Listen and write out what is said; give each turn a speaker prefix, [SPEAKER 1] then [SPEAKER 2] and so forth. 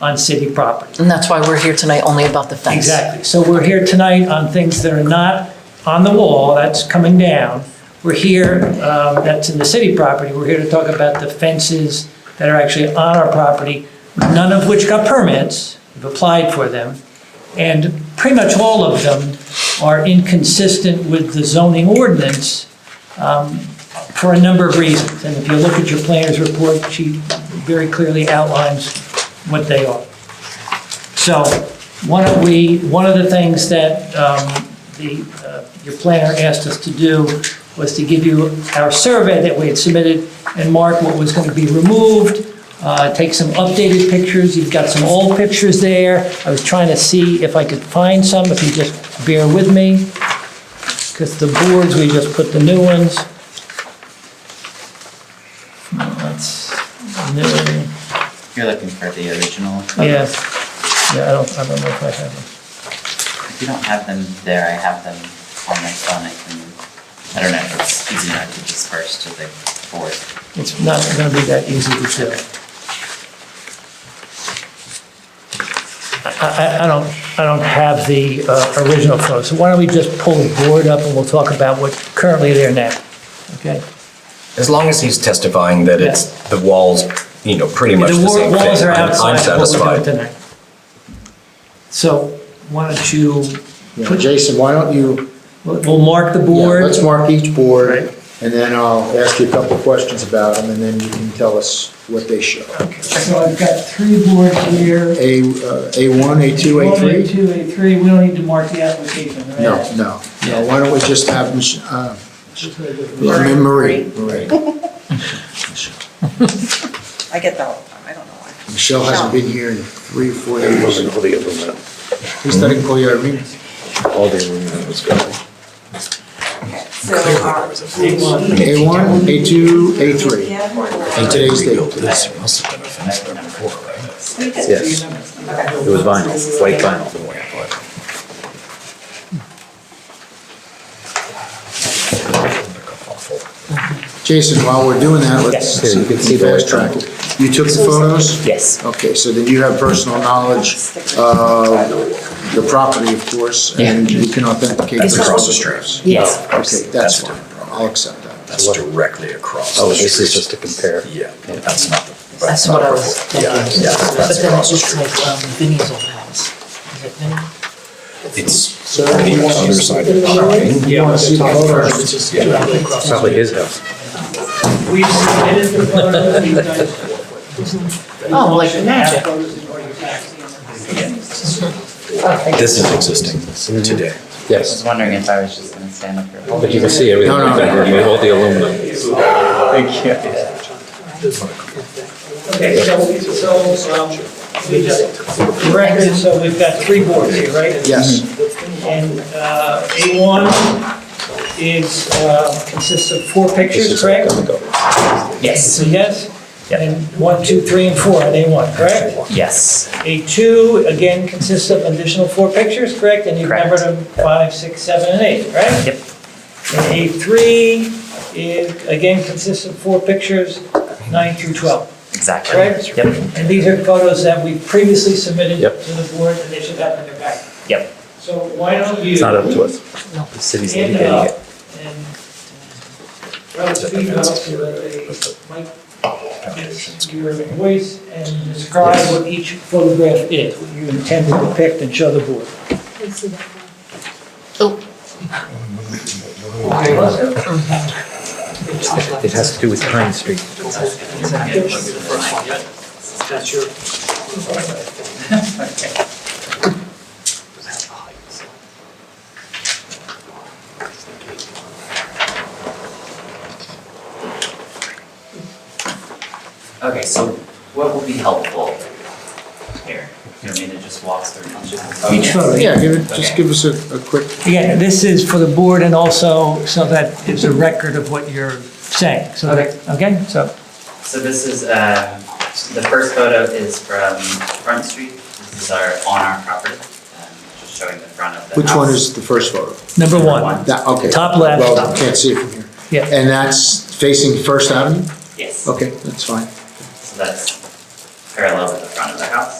[SPEAKER 1] on city property.
[SPEAKER 2] And that's why we're here tonight, only about the fence.
[SPEAKER 1] Exactly. So we're here tonight on things that are not on the wall, that's coming down. We're here, um, that's in the city property, we're here to talk about the fences that are actually on our property, none of which got permits, we've applied for them. And pretty much all of them are inconsistent with the zoning ordinance um, for a number of reasons. And if you look at your planner's report, she very clearly outlines what they are. So one of we, one of the things that um, the, uh, your planner asked us to do was to give you our survey that we had submitted and mark what was going to be removed, uh, take some updated pictures, you've got some old pictures there. I was trying to see if I could find some, if you just bear with me, because the boards, we just put the new ones. No, That's new.
[SPEAKER 3] You're looking for the original.
[SPEAKER 1] Yeah, yeah, I don't, I don't know if I have them.
[SPEAKER 3] If you don't have them there, I have them on my phone, I can, I don't know, if it's easy enough to disperse to the board.
[SPEAKER 1] It's not gonna be that easy to do. I, I, I don't, I don't have the uh, original photo, so why don't we just pull the board up and we'll talk about what's currently there now, okay?
[SPEAKER 4] As long as he's testifying that it's, the walls, you know, pretty much
[SPEAKER 1] The
[SPEAKER 4] the
[SPEAKER 1] wa-
[SPEAKER 4] same thing.
[SPEAKER 1] walls are
[SPEAKER 4] I'm-
[SPEAKER 1] outside
[SPEAKER 4] I'm
[SPEAKER 1] of what we're doing
[SPEAKER 4] satisfied.
[SPEAKER 1] tonight. So, why don't you,
[SPEAKER 5] Yeah, Jason, why don't you,
[SPEAKER 1] we'll we'll mark the
[SPEAKER 5] yeah,
[SPEAKER 1] board.
[SPEAKER 5] let's mark each board,
[SPEAKER 1] Right.
[SPEAKER 5] and then I'll ask you a couple of questions about them, and then you can tell us what they show.
[SPEAKER 1] So I've got three boards here.
[SPEAKER 5] A, uh, A1, A2, A3?
[SPEAKER 1] Two, eight, three, we don't need to mark the application, right?
[SPEAKER 5] No, no, no, why don't we just have, Mich- uh, Marie, Marie.
[SPEAKER 6] I get that all the time, I don't know why.
[SPEAKER 5] Michelle hasn't been here in three or four years.
[SPEAKER 7] Wasn't all the other one.
[SPEAKER 5] Who's that, call you Irene?
[SPEAKER 7] All the other one was gone.
[SPEAKER 6] Okay, So, uh,
[SPEAKER 5] A1, A2, A3.
[SPEAKER 6] yeah, more or less.
[SPEAKER 5] And today's
[SPEAKER 4] Rebuilt
[SPEAKER 5] date.
[SPEAKER 4] this, it must have been a fence there before, right?
[SPEAKER 6] We did.
[SPEAKER 7] Yes.
[SPEAKER 6] Okay.
[SPEAKER 7] It was vinyl, white vinyl.
[SPEAKER 5] Jason, while we're doing that, let's
[SPEAKER 7] Yeah, you can see the-
[SPEAKER 5] fast track. it. You took the photos?
[SPEAKER 7] Yes.
[SPEAKER 5] Okay, so then you have personal knowledge
[SPEAKER 7] Uh,
[SPEAKER 5] of Uh, the property, of course, and you can authenticate.
[SPEAKER 4] That's
[SPEAKER 5] the
[SPEAKER 4] across the
[SPEAKER 5] photos.
[SPEAKER 4] street.
[SPEAKER 2] Yes.
[SPEAKER 5] Okay, that's fine, I'll accept that.
[SPEAKER 4] That's directly across.
[SPEAKER 7] Oh,
[SPEAKER 4] the
[SPEAKER 7] this is
[SPEAKER 4] street.
[SPEAKER 7] just to compare.
[SPEAKER 4] Yeah, that's not the.
[SPEAKER 2] That's what I was thinking.
[SPEAKER 4] Yeah, yeah,
[SPEAKER 2] But
[SPEAKER 4] that's
[SPEAKER 2] then it
[SPEAKER 4] across the
[SPEAKER 2] looks
[SPEAKER 4] street.
[SPEAKER 2] like um, Vinnie's old house. Is it Vinnie?
[SPEAKER 4] It's on the other side of the line.
[SPEAKER 5] You want to see the photos?
[SPEAKER 7] Probably his house.
[SPEAKER 1] We submitted the photos, you guys.
[SPEAKER 2] Oh, like magic.
[SPEAKER 4] This is existing today.
[SPEAKER 3] I was
[SPEAKER 7] Yes,
[SPEAKER 3] wondering if I was just gonna stand up here.
[SPEAKER 7] but you can see everything.
[SPEAKER 5] No, no,
[SPEAKER 7] like that,
[SPEAKER 5] no.
[SPEAKER 7] All the aluminum.
[SPEAKER 1] Okay, so, so, um, we just, for record, so we've got three boards here, right?
[SPEAKER 5] Yes,
[SPEAKER 1] And, uh, A1 is, uh, consists of four
[SPEAKER 7] This
[SPEAKER 1] pictures,
[SPEAKER 7] is
[SPEAKER 1] correct?
[SPEAKER 7] gonna go.
[SPEAKER 1] Yes. Yes? And one, two, three, and four on A1, correct?
[SPEAKER 3] Yes.
[SPEAKER 1] A2, again, consists of additional four pictures, correct? And you've
[SPEAKER 3] Correct.
[SPEAKER 1] numbered them five, six, seven, and eight, right?
[SPEAKER 3] Yep.
[SPEAKER 1] And A3 is, again, consists of four pictures, nine through 12.
[SPEAKER 3] Exactly.
[SPEAKER 1] Correct.
[SPEAKER 3] Yep,
[SPEAKER 1] And these are photos that we previously submitted
[SPEAKER 7] Yep.
[SPEAKER 1] to the board, and they should have in their packet.
[SPEAKER 3] yep.
[SPEAKER 1] So why don't you
[SPEAKER 7] It's not up
[SPEAKER 1] hand
[SPEAKER 7] to us.
[SPEAKER 3] The city's
[SPEAKER 1] it up and uh, relative to the mic, your voice, and describe what each photograph is, what you intend to depict and show the board.
[SPEAKER 7] It has to do with Pine Street.
[SPEAKER 3] Okay, so what will be helpful here? You want me to just walk through each of them?
[SPEAKER 1] Each photo,
[SPEAKER 5] Uh, yeah, give it, just
[SPEAKER 3] Okay.
[SPEAKER 5] give us a, a quick,
[SPEAKER 1] Again, this is for the board and also so that it's a record of what you're saying. So, that- okay, so,
[SPEAKER 3] So this is, uh, the first photo is from Front Street. This is our, on our property, um, just showing the front of the
[SPEAKER 5] which
[SPEAKER 3] house.
[SPEAKER 5] one is the first photo?
[SPEAKER 1] number
[SPEAKER 3] Number
[SPEAKER 1] one.
[SPEAKER 3] one.
[SPEAKER 5] That, okay.
[SPEAKER 1] Top left.
[SPEAKER 5] Well, can't see it from here.
[SPEAKER 1] Yeah.
[SPEAKER 5] And that's facing First Avenue?
[SPEAKER 3] Yes,
[SPEAKER 5] Okay, that's fine.
[SPEAKER 3] so that's parallel with the front of the house.